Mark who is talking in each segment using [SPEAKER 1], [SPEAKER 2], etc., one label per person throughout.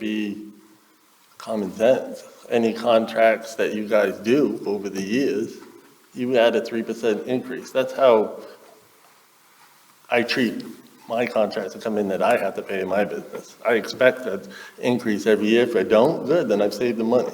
[SPEAKER 1] be common sense. Any contracts that you guys do over the years, you add a three percent increase. That's how I treat my contracts that come in that I have to pay in my business. I expect that increase every year. If I don't, good, then I've saved the money.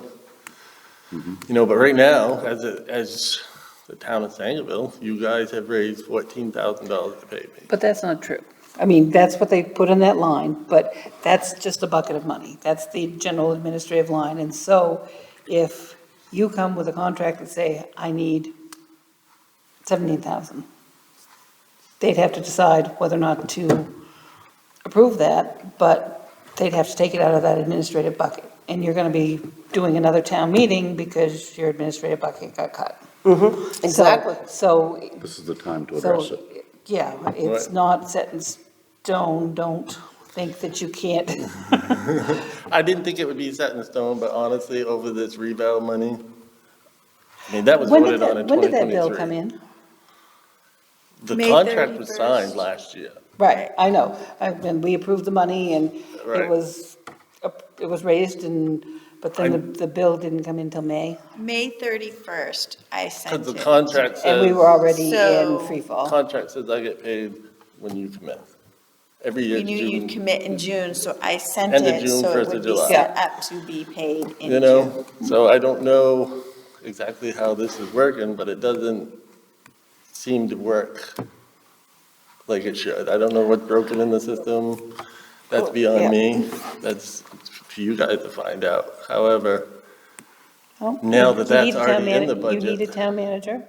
[SPEAKER 1] You know, but right now, as, it- as the town of Sangerville, you guys have raised fourteen thousand dollars to pay me.
[SPEAKER 2] But that's not true. I mean, that's what they put in that line, but that's just a bucket of money. That's the general administrative line. And so if you come with a contract and say, I need seventeen thousand, they'd have to decide whether or not to approve that, but they'd have to take it out of that administrative bucket. And you're gonna be doing another town meeting because your administrative bucket got cut. So-
[SPEAKER 3] Exactly.
[SPEAKER 2] So
[SPEAKER 4] This is the time to
[SPEAKER 2] so,
[SPEAKER 4] address it.
[SPEAKER 2] Yeah, it's
[SPEAKER 1] Right.
[SPEAKER 2] not set in stone, don't think that you can't.
[SPEAKER 1] I didn't think it would be set in stone, but honestly, over this revale money, I mean, that was
[SPEAKER 2] When did
[SPEAKER 1] voted on in
[SPEAKER 2] that, when
[SPEAKER 1] twenty
[SPEAKER 2] did
[SPEAKER 1] twenty-three.
[SPEAKER 2] that bill come in?
[SPEAKER 1] The
[SPEAKER 3] May
[SPEAKER 1] contract was
[SPEAKER 3] 31st.
[SPEAKER 1] signed last year.
[SPEAKER 2] Right, I know, I- and we approved the money and it
[SPEAKER 1] Right.
[SPEAKER 2] was, up- it was raised and, but then the, the bill didn't come in till May.
[SPEAKER 3] May 31st, I sent it.
[SPEAKER 1] Because the contract
[SPEAKER 2] And we
[SPEAKER 1] says,
[SPEAKER 2] were already in
[SPEAKER 3] So-
[SPEAKER 2] free fall.
[SPEAKER 1] contract says I get paid when you commit. Every year,
[SPEAKER 3] We knew you'd
[SPEAKER 1] June,
[SPEAKER 3] commit in June, so I sent
[SPEAKER 1] End of
[SPEAKER 3] it,
[SPEAKER 1] June,
[SPEAKER 3] so it
[SPEAKER 1] first of
[SPEAKER 3] would be
[SPEAKER 1] July.
[SPEAKER 3] set up to be paid in
[SPEAKER 1] you
[SPEAKER 3] June.
[SPEAKER 1] know? So I don't know exactly how this is working, but it doesn't seem to work like it should. I don't know what's broken in the system. That's
[SPEAKER 2] Well, yeah.
[SPEAKER 1] beyond me. That's for you guys to find out. However,
[SPEAKER 2] Well,
[SPEAKER 1] Now that
[SPEAKER 2] Oh,
[SPEAKER 1] that's
[SPEAKER 2] you need a town
[SPEAKER 1] already in
[SPEAKER 2] mana-
[SPEAKER 1] the
[SPEAKER 2] You need a
[SPEAKER 1] budget.
[SPEAKER 2] town manager.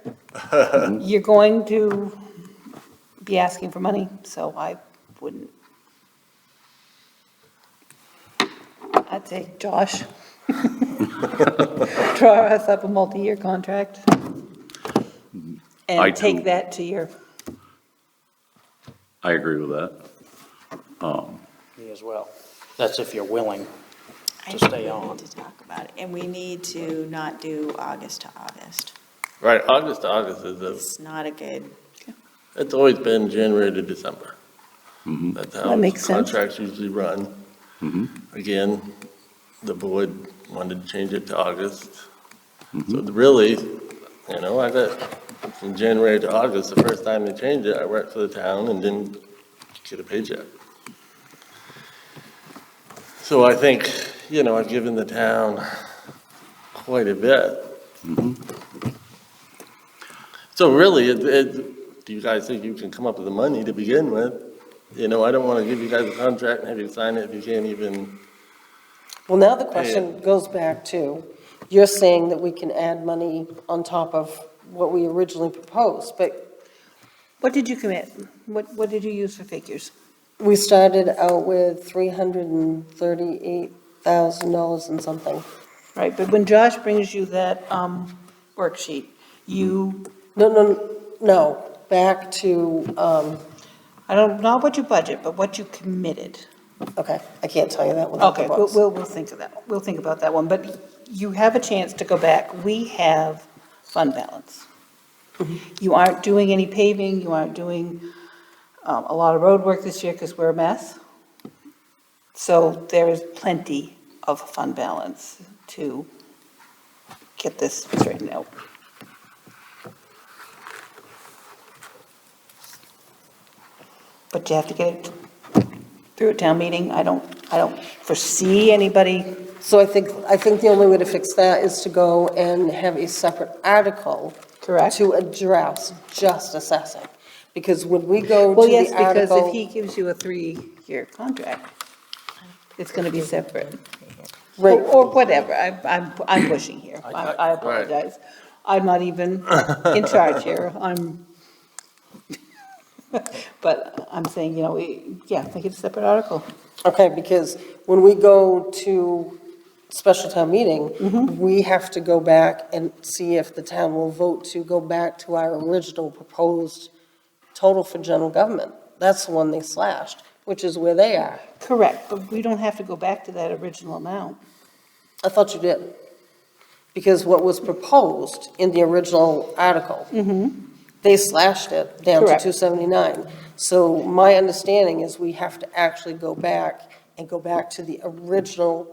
[SPEAKER 2] You're going to be asking for money, so I wouldn't. I'd say, Josh, draw us up a multi-year contract
[SPEAKER 4] I
[SPEAKER 2] and
[SPEAKER 4] do.
[SPEAKER 2] take that to your,
[SPEAKER 4] I agree with that. Um,
[SPEAKER 5] Me as well. That's if you're willing.
[SPEAKER 3] I
[SPEAKER 5] To
[SPEAKER 3] think
[SPEAKER 5] stay
[SPEAKER 3] we need
[SPEAKER 5] on.
[SPEAKER 3] To talk about it, and we need to not do August to August.
[SPEAKER 1] right, August to August is a
[SPEAKER 3] It's not a good,
[SPEAKER 1] It's always been January to December. That's how
[SPEAKER 2] That makes sense.
[SPEAKER 1] contracts usually run. Again, the board wanted to change it to August. So the- really, you know, I got, from January to August, the first time they changed it, I worked for the town and didn't get a paycheck. So I think, you know, I've given the town quite a bit. So really, it, it, do you guys think you can come up with the money to begin with? You know, I don't want to give you guys a contract and have you sign it if you can't even,
[SPEAKER 6] Well, now the question goes back to, you're saying that we can add money on top of what we originally proposed, but
[SPEAKER 2] what did you commit? What, what did you use for figures?
[SPEAKER 6] we started out with three hundred and thirty-eight thousand dollars and something.
[SPEAKER 2] Right, but when Josh brings you that um, worksheet, you,
[SPEAKER 6] No, no, no, back to, um,
[SPEAKER 2] I don't, not what you budget, but what you committed.
[SPEAKER 6] okay, I can't tell you that without the
[SPEAKER 2] Okay, we'll,
[SPEAKER 6] books.
[SPEAKER 2] we'll, we'll think of that, we'll think about that one, but you have a chance to go back, we have fund balance.
[SPEAKER 6] Mm-hmm.
[SPEAKER 2] You aren't doing any paving, you aren't doing, um, a lot of road work this year, because we're a mess. So there is plenty of fund balance to get this straightened out. But you have to get it through a town meeting, I don't, I don't foresee anybody
[SPEAKER 6] So I think, I think the only way to fix that is to go and have a separate article
[SPEAKER 2] Correct.
[SPEAKER 6] to address just assessing, because when we go to
[SPEAKER 2] Well, yes,
[SPEAKER 6] the
[SPEAKER 2] because if
[SPEAKER 6] article,
[SPEAKER 2] he gives you a three-year contract, it's gonna be separate. Or
[SPEAKER 6] Right.
[SPEAKER 2] or whatever, I- I'm, I'm pushing here, I I
[SPEAKER 1] Right.
[SPEAKER 2] apologize. I'm not even in charge here, I'm, but I'm saying, you know, we- yeah, make it a separate article.
[SPEAKER 6] Okay, because when we go to special town meeting, we have to go back and see if the town will vote to go back to our original proposed total for general government. That's the one they slashed, which is where they are.
[SPEAKER 2] Correct, but we don't have to go back to that original amount.
[SPEAKER 6] I thought you did. Because what was proposed in the original article, they slashed it down to
[SPEAKER 2] Correct.
[SPEAKER 6] 279. So my understanding is we have to actually go back and go back to the original